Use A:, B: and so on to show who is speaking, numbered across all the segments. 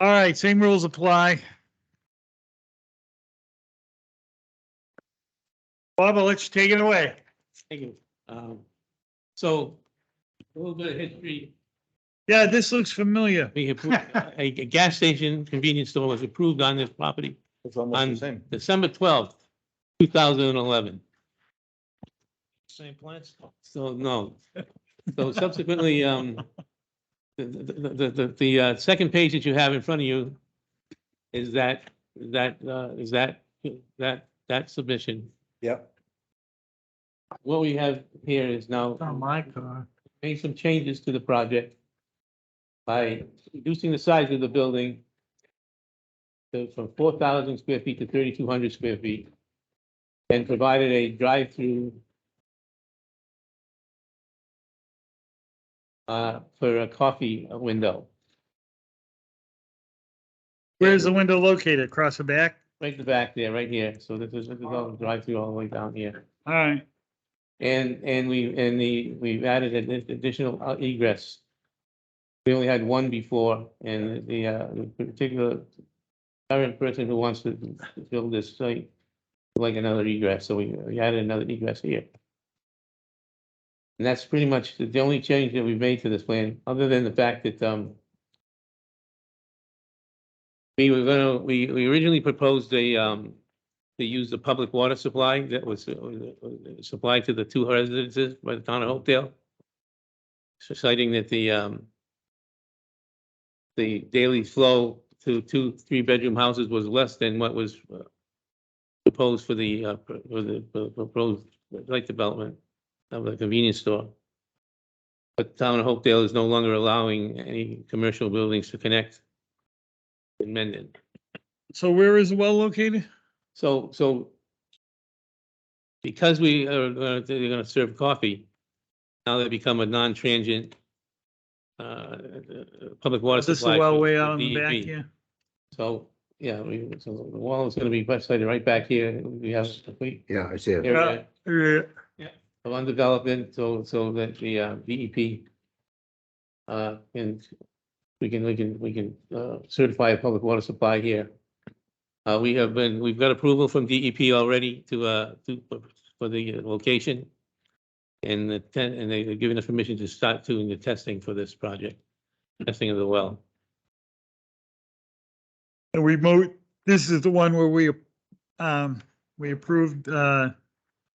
A: All right, same rules apply. Bob, I'll let you take it away.
B: Thank you. Um, so a little bit of history.
A: Yeah, this looks familiar.
B: We have, a, a gas station convenience store was approved on this property
C: It's almost
B: on
C: the same.
B: December twelfth, two thousand and eleven.
A: Same plants?
B: So, no. So subsequently, um, the, the, the, the, the, uh, second page that you have in front of you is that, that, uh, is that, that, that submission.
C: Yep.
B: What we have here is now
A: my car.
B: made some changes to the project by reducing the size of the building to- from four thousand square feet to thirty-two hundred square feet and provided a drive-through uh, for a coffee window,
A: Where's the window located? Across the back?
B: right in the back there, right here. So this is, this is all drive-through all the way down here.
A: All right,
B: And, and we, and the, we've added an additional uh, egress. We only had one before, and the, uh, the particular current person who wants to build this site, would like another egress, so we, we added another egress here. And that's pretty much the the only change that we've made to this plan, other than the fact that, um, we were gonna, we, we originally proposed a, um, to use the public water supply that was uh, uh, supplied to the two residences by the town of Hopedale. So Citing that the, um, the daily flow to two, three-bedroom houses was less than what was uh, proposed for the, uh, pro- for the pro- proposed light development of the convenience store. But town of Hopedale is no longer allowing any commercial buildings to connect in Mendon.
A: so where is the well located?
B: So, so because we are, gonna- they're gonna serve coffee, now they become a non-transient uh, uh, public water
A: Is this
B: supply.
A: the well
B: for-
A: way
B: for
A: out on the back
B: DEP.
A: here?
B: So, yeah, we, so the wall is gonna be sited right back here. We have a complete
C: Yeah, I see it.
B: area
A: Yeah.
B: of undevelopment, so, so that the uh, DEP uh, and we can, we can, we can uh, certify a public water supply here. Uh, we have been, we've got approval from DEP already to, uh, to, for the uh, location. And the ten, and they've given us permission to start doing the testing for this project, testing of the well.
A: The remote, this is the one where we, um, we approved, uh,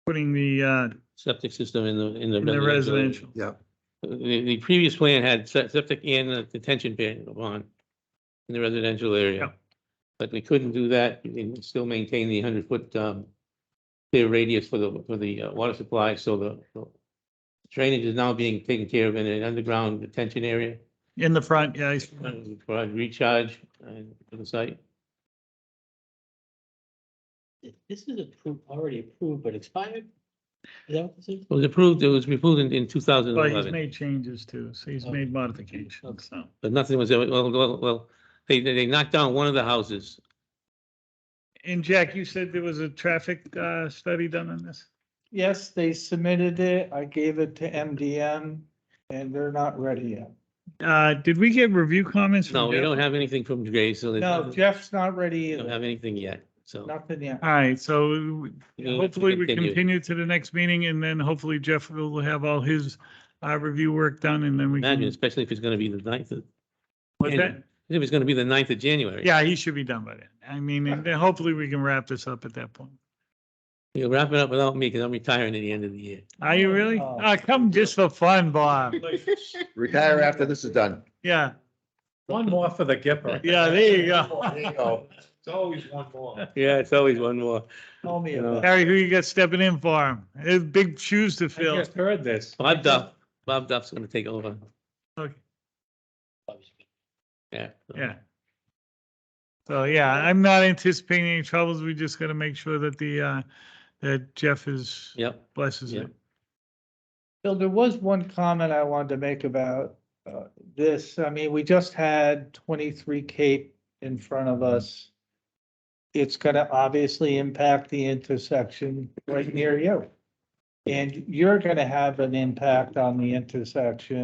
A: putting the, uh,
B: Septic system in the, in the.
A: in the residential.
B: The, the previous plan had se- septic and a detention pond in the residential
A: Yeah.
B: area. But we couldn't do that and still maintain the hundred foot, um, clear radius for the, for the uh, water supply, so the the drainage is now being taken care of in an underground detention area,
A: In the front, yeah. he's-
B: uh, for a recharge and for the site.
D: This is approved, already approved, but expired? Is that what this is?
B: It was approved, it was approved in, in two thousand
A: But
B: and
A: he's
B: eleven,
A: made changes too, so he's made modifications, so.
B: but nothing was, ever- well, well, well, they, they they knocked down one of the houses.
A: And Jack, you said there was a traffic, uh, study done on this?
E: Yes, they submitted it. I gave it to MDM and they're not ready yet.
A: Uh, did we get review comments? from
B: No, we
A: Jeff?
B: don't have anything from Gray, so. they-
E: No, Jeff's not
B: We
E: ready
B: don't
E: either.
B: have anything yet, so.
E: Nothing yet.
A: All right, so
B: you know,
A: hopefully we
B: continue.
A: continue to the next meeting and then hopefully Jeff will have all his, uh, review work done and then we
B: Imagine,
A: can.
B: especially if it's gonna be the ninth of,
A: What's that?
B: if it's gonna be the ninth of January.
A: Yeah, he should be done by then. I mean, and then hopefully we can wrap this up at that point.
B: You'll wrap it up without me, because I'm retiring at the end of the year.
A: Are you really?
E: Oh.
A: Uh, come just for fun, Bob.
C: Retire after this is done.
A: Yeah,
F: One more for the Gipper.
A: yeah, there you go.
C: go.
F: It's always one more.
B: Yeah, it's always one more.
E: Tell me
B: You know,
E: about it.
A: Harry, who you got stepping in for him? It's big shoes to
F: I
A: fill.
F: just heard this.
B: Bob Duff, Bob Duff's gonna take over,
A: Okay,
B: yeah.
A: Yeah. So, yeah, I'm not anticipating any troubles. We just gotta make sure that the, uh, that Jeff is,
B: Yep,
A: blesses
B: Yeah.
A: it.
E: Bill, there was one comment I wanted to make about uh, this. I mean, we just had twenty-three Cape in front of us. It's gonna obviously impact the intersection right near you. And you're gonna have an impact on the intersection